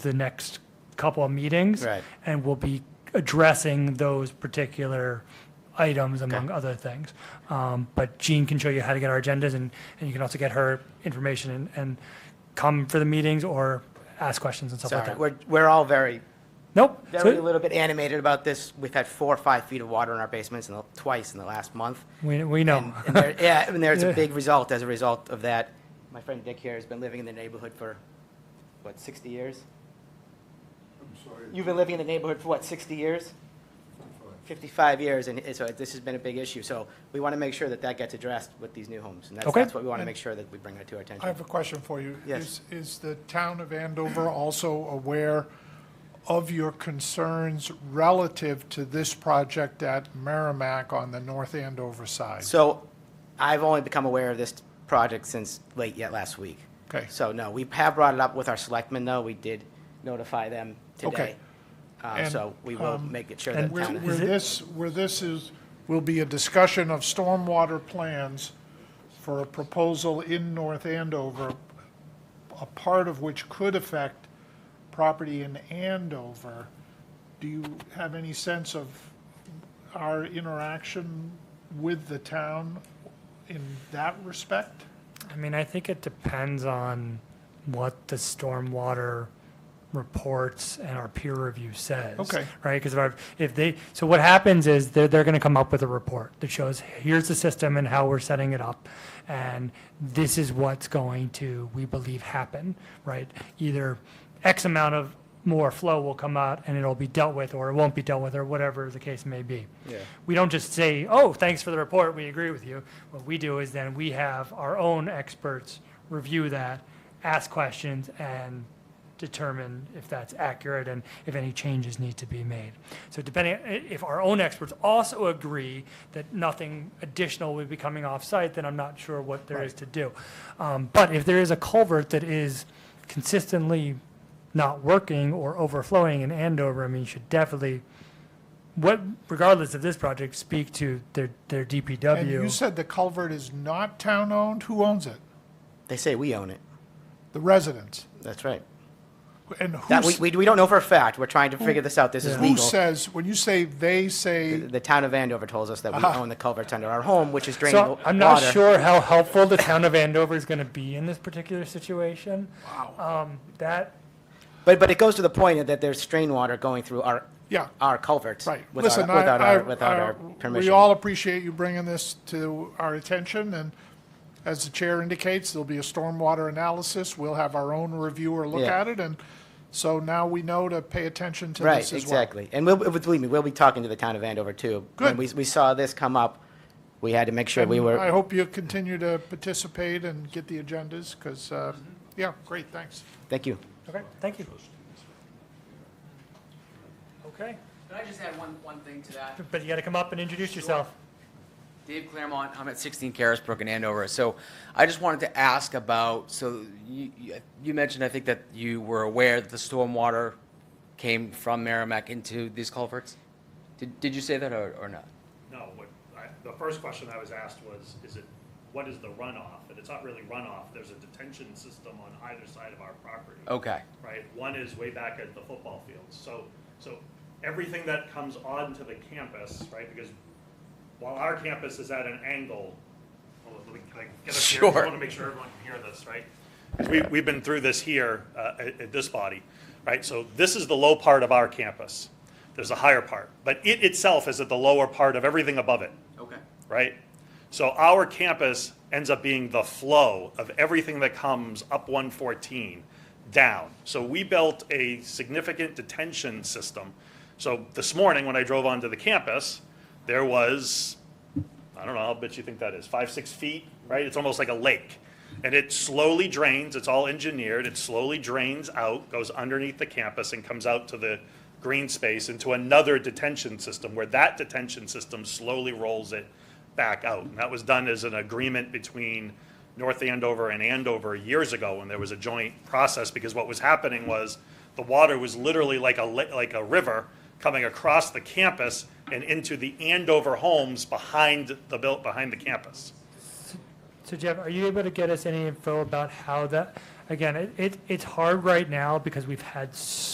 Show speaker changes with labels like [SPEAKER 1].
[SPEAKER 1] the next couple of meetings.
[SPEAKER 2] Right.
[SPEAKER 1] And we'll be addressing those particular items among other things. Um, But Jean can show you how to get our agendas and, and you can also get her information and, and come for the meetings or ask questions and stuff like
[SPEAKER 2] Sorry,
[SPEAKER 1] that.
[SPEAKER 2] we're, we're all very,
[SPEAKER 1] Nope. so-
[SPEAKER 2] very little bit animated about this. We've had four or five feet of water in our basements in the, twice in the last month.
[SPEAKER 1] We, we know.
[SPEAKER 2] And, and there, yeah, and there's
[SPEAKER 1] Yeah.
[SPEAKER 2] a big result as a result of that. My friend Dick here has been living in the neighborhood for, what, 60 years? You've been living in the neighborhood for what, 60 years? 55 years, and it- so this has been a big issue. So we want to make sure that that gets addressed with these new homes. And that's,
[SPEAKER 1] Okay.
[SPEAKER 2] that's what we want to make sure that we bring to our
[SPEAKER 3] I
[SPEAKER 2] attention.
[SPEAKER 3] have a question for you.
[SPEAKER 2] Yes.
[SPEAKER 3] Is, is the town of Andover also aware of your concerns relative to this project at Merrimack on the North Andover side?
[SPEAKER 2] So I've only become aware of this project since late yet last week.
[SPEAKER 3] Okay.
[SPEAKER 2] So no, we have brought it up with our selectmen, though. We did notify them
[SPEAKER 3] Okay.
[SPEAKER 2] today. Uh,
[SPEAKER 3] And, um,
[SPEAKER 2] So we will make it sure that
[SPEAKER 1] and
[SPEAKER 3] Where,
[SPEAKER 2] town.
[SPEAKER 3] where
[SPEAKER 1] it-
[SPEAKER 3] this, where this is, will be a discussion of stormwater plans for a proposal in North Andover, a part of which could affect property in Andover. Do you have any sense of our interaction with the town in that respect?
[SPEAKER 1] I mean, I think it depends on what the stormwater reports and our peer review says.
[SPEAKER 3] Okay.
[SPEAKER 1] Right? Because if, I- if they, so what happens is they're, they're going to come up with a report that shows, here's the system and how we're setting it up. And this is what's going to, we believe, happen, right? Either X amount of more flow will come out and it'll be dealt with, or it won't be dealt with, or whatever the case may be
[SPEAKER 2] Yeah.
[SPEAKER 1] we don't just say, oh, thanks for the report, we agree with you. What we do is then we have our own experts review that, ask questions, and determine if that's accurate and if any changes need to be made. So depending, i- if our own experts also agree that nothing additional would be coming off-site, then I'm not sure what there is to do. Um, But if there is a culvert that is consistently not working or overflowing in Andover, I mean, you should definitely what, regardless of this project, speak to their, their
[SPEAKER 3] And you
[SPEAKER 1] DPW.
[SPEAKER 3] said the culvert is not town-owned? Who owns it?
[SPEAKER 2] They say we own it.
[SPEAKER 3] The residents?
[SPEAKER 2] That's right.
[SPEAKER 3] And who
[SPEAKER 2] That,
[SPEAKER 3] s-
[SPEAKER 2] we, we, we don't know for a fact. We're trying to figure this out. This is
[SPEAKER 3] Who
[SPEAKER 2] legal.
[SPEAKER 3] says, when you say they say,
[SPEAKER 2] The town of Andover tells us that we
[SPEAKER 3] Uh-huh.
[SPEAKER 2] own the culverts under our home, which is draining wa-
[SPEAKER 1] So
[SPEAKER 2] water.
[SPEAKER 1] I'm not sure how helpful the town of Andover is gonna be in this particular situation. Wow. Um, that,
[SPEAKER 2] But, but it goes to the point that there's strain water going through our,
[SPEAKER 3] yeah,
[SPEAKER 2] our culverts.
[SPEAKER 3] right.
[SPEAKER 2] Without,
[SPEAKER 3] Listen, I-
[SPEAKER 2] without
[SPEAKER 3] I-
[SPEAKER 2] our, without
[SPEAKER 3] I-
[SPEAKER 2] our
[SPEAKER 3] We
[SPEAKER 2] permission.
[SPEAKER 3] all appreciate you bringing this to our attention, and as the chair indicates, there'll be a stormwater analysis. We'll have our own reviewer look
[SPEAKER 2] Yeah.
[SPEAKER 3] at it, and so now we know to pay attention to
[SPEAKER 2] Right,
[SPEAKER 3] this as well.
[SPEAKER 2] exactly. And we'll, believe me, we'll be talking to the town of Andover too. When
[SPEAKER 3] Good.
[SPEAKER 2] we, we saw this come up, we had to make sure we
[SPEAKER 3] And I
[SPEAKER 2] were,
[SPEAKER 3] hope you continue to participate and get the agendas, because, yeah, great, thanks.
[SPEAKER 2] thank you.
[SPEAKER 1] okay, thank you. Okay,
[SPEAKER 4] Can I just add one, one thing to that?
[SPEAKER 1] but you gotta come up and introduce yourself.
[SPEAKER 4] Dave Claremont, I'm at 16 Carisbrook in Andover. So I just wanted to ask about, so you, you- you mentioned, I think, that you were aware that the stormwater came from Merrimack into these culverts? Did, did you say that or, or not?
[SPEAKER 5] No, what, I, the first question I was asked was, is it, what is the runoff? And it's not really runoff, there's a detention system on either side of our property.
[SPEAKER 4] Okay,
[SPEAKER 5] Right, one is way back at the football fields, so, so everything that comes onto the campus, right, because while our campus is at an angle, well, let me, can I get up here? I
[SPEAKER 4] Sure.
[SPEAKER 5] wanna make sure everyone can hear this, right? 'Cause We, we've been through this here, uh, at, at this body, right? So this is the low part of our campus. There's a higher part, but it itself is at the lower part of everything above it,
[SPEAKER 4] okay.
[SPEAKER 5] right? So our campus ends up being the flow of everything that comes up 114 down. So we built a significant detention system. So this morning, when I drove onto the campus, there was I don't know, I'll bet you think that is, five, six feet, right? It's almost like a lake. And it slowly drains, it's all engineered, it slowly drains out, goes underneath the campus and comes out to the green space into another detention system where that detention system slowly rolls it back out. And that was done as an agreement between North Andover and Andover years ago when there was a joint process because what was happening was the water was literally like a, li- like a river coming across the campus and into the Andover homes behind the built, behind the campus.
[SPEAKER 1] So Jeff, are you able to get us any info about how that, again, it, it, it's hard right now because we've had so